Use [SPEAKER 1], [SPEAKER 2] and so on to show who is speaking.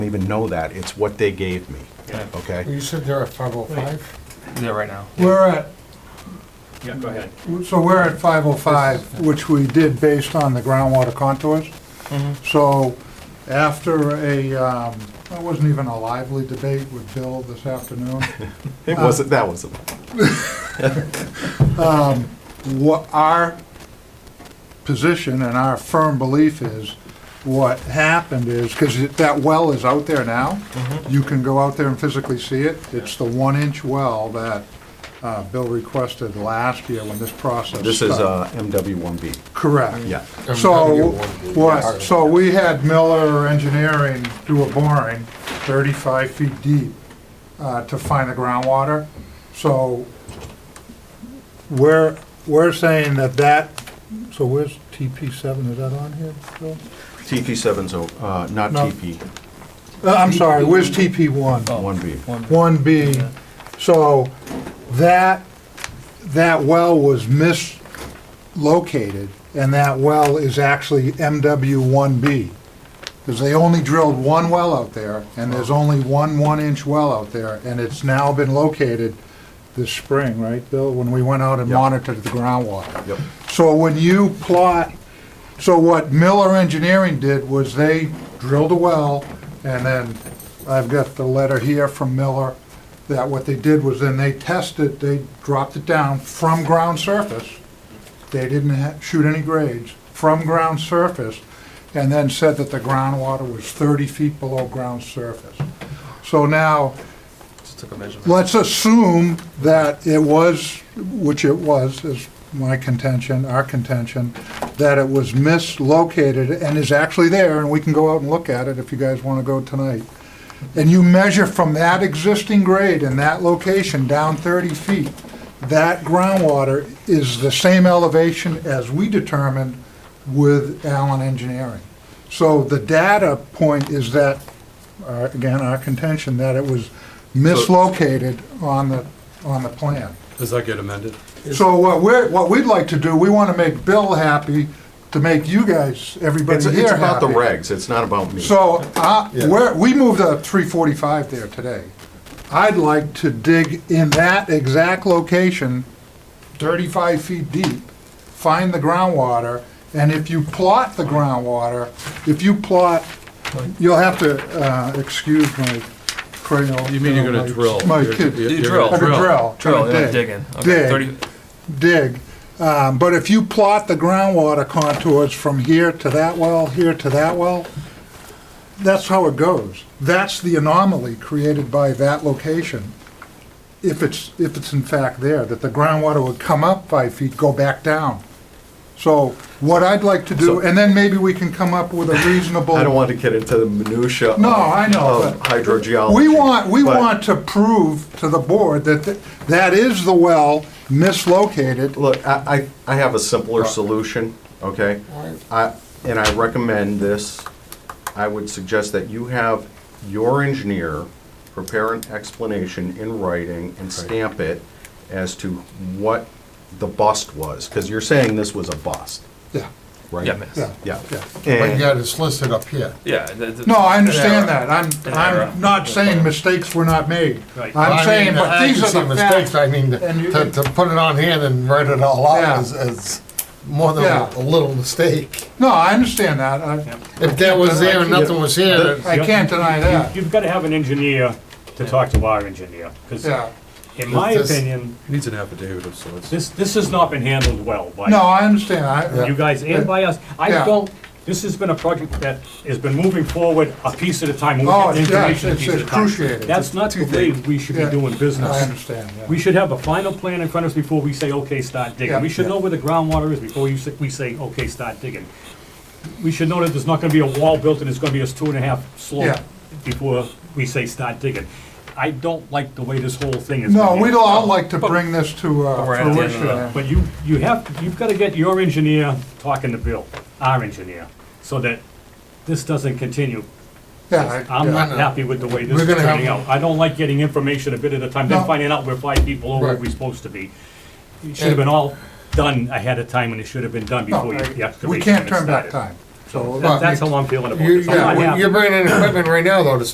[SPEAKER 1] don't even know that, it's what they gave me,
[SPEAKER 2] Yeah.
[SPEAKER 1] okay?
[SPEAKER 3] You said there are 505?
[SPEAKER 2] There right now.
[SPEAKER 3] We're at,
[SPEAKER 2] Yeah, go ahead.
[SPEAKER 3] so we're at 505, which we did based on the groundwater contours. Mm-hmm. So after a, um, that wasn't even a lively debate with Bill this afternoon, Mm-hmm.
[SPEAKER 1] It wasn't, that wasn't,
[SPEAKER 3] Uh, what our position and our firm belief is, what happened is, because that well is out there now,
[SPEAKER 1] Mm-hmm.
[SPEAKER 3] you can go out there and physically see it. It's the one-inch well that uh, Bill requested last year when this process started.
[SPEAKER 1] this is uh, MW1B,
[SPEAKER 3] Mm-hmm. Correct.
[SPEAKER 1] yeah.
[SPEAKER 3] So, what, so we had Miller Engineering do a boring 35 feet deep uh, to find the groundwater. So we're, we're saying that that, so where's TP7, is that on here, Bill?
[SPEAKER 1] TP7's, o- uh, not
[SPEAKER 3] No.
[SPEAKER 1] TP,
[SPEAKER 3] Uh, I'm sorry, where's TP1?
[SPEAKER 1] Oh,
[SPEAKER 3] Oh.
[SPEAKER 1] 1B.
[SPEAKER 3] one B. So that, that well was mislocated, and that well is actually MW one B. Because they only drilled one well out there, and there's only one one-inch well out there, and it's now been located this spring, right, Bill, when we went out and
[SPEAKER 1] Yep.
[SPEAKER 3] monitored the groundwater.
[SPEAKER 1] Yep,
[SPEAKER 3] So when you plot, so what Miller Engineering did was they drilled a well, and then, I've got the letter here from Miller, that what they did was then they tested, they dropped it down from ground surface. They didn't ha- shoot any grades, from ground surface, and then said that the groundwater was 30 feet below ground surface. So now,
[SPEAKER 2] Just took a measurement.
[SPEAKER 3] let's assume that it was, which it was, is my contention, our contention, that it was mislocated and is actually there, and we can go out and look at it if you guys want to go tonight. And you measure from that existing grade in that location down 30 feet, that groundwater is the same elevation as we determined with Allen Engineering. So the data point is that, uh, again, our contention, that it was mislocated on the, on the plan.
[SPEAKER 4] Does that get amended?
[SPEAKER 3] So what we're, what we'd like to do, we want to make Bill happy, to make you guys, everybody
[SPEAKER 1] it's,
[SPEAKER 3] here happy.
[SPEAKER 1] it's about the regs, it's not about me.
[SPEAKER 3] So, uh, we're, we moved a 345 there today. I'd like to dig in that exact location, 35 feet deep, find the groundwater, and if you plot the groundwater, if you plot, you'll have to, uh, excuse my cranial.
[SPEAKER 4] You mean you're gonna drill?
[SPEAKER 3] My
[SPEAKER 4] You're-
[SPEAKER 3] kid,
[SPEAKER 4] you're-
[SPEAKER 2] You
[SPEAKER 4] you're gonna
[SPEAKER 3] like a drill.
[SPEAKER 2] Drill,
[SPEAKER 3] kinda
[SPEAKER 2] yeah,
[SPEAKER 3] dig.
[SPEAKER 2] digging. Okay, 30
[SPEAKER 3] Dig. dig. Um, But if you plot the groundwater contours from here to that well, here to that well, that's how it goes. That's the anomaly created by that location, if it's, if it's in fact there, that the groundwater would come up five feet, go back down. So what I'd like to do, and then maybe we can come up with a reasonable.
[SPEAKER 1] I don't want to get into the minutia.
[SPEAKER 3] No,
[SPEAKER 1] of-
[SPEAKER 3] I know,
[SPEAKER 1] Of
[SPEAKER 3] but-
[SPEAKER 1] hydrogeology.
[SPEAKER 3] We want, we
[SPEAKER 1] but-
[SPEAKER 3] want to prove to the board that th- that is the well mislocated.
[SPEAKER 1] Look, I, I, I have a simpler solution, okay? I, and I recommend this, I would suggest that you have your engineer prepare an explanation in writing and stamp it as to what the bust was, because you're saying this was a bust,
[SPEAKER 3] Yeah,
[SPEAKER 1] right?
[SPEAKER 2] Yeah, miss.
[SPEAKER 3] yeah.
[SPEAKER 1] Yeah.
[SPEAKER 3] Yeah.
[SPEAKER 5] But
[SPEAKER 1] And,
[SPEAKER 5] yet it's listed up here.
[SPEAKER 2] Yeah. th- th-
[SPEAKER 3] No, I understand
[SPEAKER 2] an
[SPEAKER 3] that. I'm,
[SPEAKER 2] An error.
[SPEAKER 3] I'm not saying mistakes were not made.
[SPEAKER 2] Right.
[SPEAKER 5] I
[SPEAKER 3] I'm
[SPEAKER 5] mean,
[SPEAKER 3] saying, but
[SPEAKER 5] I
[SPEAKER 3] these
[SPEAKER 5] can see
[SPEAKER 3] are the
[SPEAKER 5] mistakes.
[SPEAKER 3] facts.
[SPEAKER 5] I mean,
[SPEAKER 3] And you-
[SPEAKER 5] to, to put it on hand and write it all
[SPEAKER 3] Yeah.
[SPEAKER 5] out is, is more than
[SPEAKER 3] Yeah.
[SPEAKER 5] a little mistake.
[SPEAKER 3] No, I understand that. I,
[SPEAKER 5] If that was there and nothing was here,
[SPEAKER 3] I can't deny that.
[SPEAKER 6] You've got to have an engineer to talk to our engineer, because
[SPEAKER 3] Yeah.
[SPEAKER 6] in my
[SPEAKER 5] This-
[SPEAKER 6] opinion,
[SPEAKER 4] Needs an affidavit of sorts.
[SPEAKER 6] this, this has not been handled well
[SPEAKER 3] No, I
[SPEAKER 6] by
[SPEAKER 3] understand. I,
[SPEAKER 6] you guys and by us. I
[SPEAKER 3] Yeah.
[SPEAKER 6] don't, this has been a project that has been moving forward a piece at a time. moving
[SPEAKER 3] Oh,
[SPEAKER 6] the
[SPEAKER 3] it's- yeah,
[SPEAKER 6] information a
[SPEAKER 3] it's-
[SPEAKER 6] piece at a
[SPEAKER 3] it's
[SPEAKER 6] time.
[SPEAKER 3] excruciating.
[SPEAKER 6] That's not the way we should be
[SPEAKER 3] Yeah.
[SPEAKER 6] doing
[SPEAKER 3] I
[SPEAKER 6] business.
[SPEAKER 3] understand, yeah.
[SPEAKER 6] We should have a final plan in front of us before we say, okay, start
[SPEAKER 3] Yeah.
[SPEAKER 6] digging. We should know where the groundwater is before you say, we say, okay, start digging. We should know that there's not gonna be a wall built and it's gonna be a two and a half slope
[SPEAKER 3] Yeah.
[SPEAKER 6] before we say, start digging. I don't like the way this whole thing is.
[SPEAKER 3] No,
[SPEAKER 6] being-
[SPEAKER 3] we'd all like to bring this to uh,
[SPEAKER 2] But we're at the end of
[SPEAKER 3] fruition.
[SPEAKER 2] the-
[SPEAKER 3] yeah.
[SPEAKER 6] But you, you have, you've gotta get your engineer talking to Bill, our engineer, so that this doesn't continue.
[SPEAKER 3] Yeah, I-
[SPEAKER 6] I'm
[SPEAKER 3] yeah.
[SPEAKER 6] not happy with the way this
[SPEAKER 5] We're
[SPEAKER 6] is
[SPEAKER 5] gonna have-
[SPEAKER 6] turning out. I don't like getting information a bit at a time, then
[SPEAKER 3] No.
[SPEAKER 6] finding out we're five people over where
[SPEAKER 5] Right.
[SPEAKER 6] we're supposed to be. It should have been all done ahead of time, and it should have been done
[SPEAKER 3] No,
[SPEAKER 6] before you- the excavation
[SPEAKER 3] We can't
[SPEAKER 6] even
[SPEAKER 3] turn back
[SPEAKER 6] started.
[SPEAKER 3] time. So
[SPEAKER 6] That- That's how I'm feeling about
[SPEAKER 5] you,
[SPEAKER 6] this. I'm not
[SPEAKER 5] yeah,
[SPEAKER 6] happy.
[SPEAKER 5] you're bringing in equipment right now though to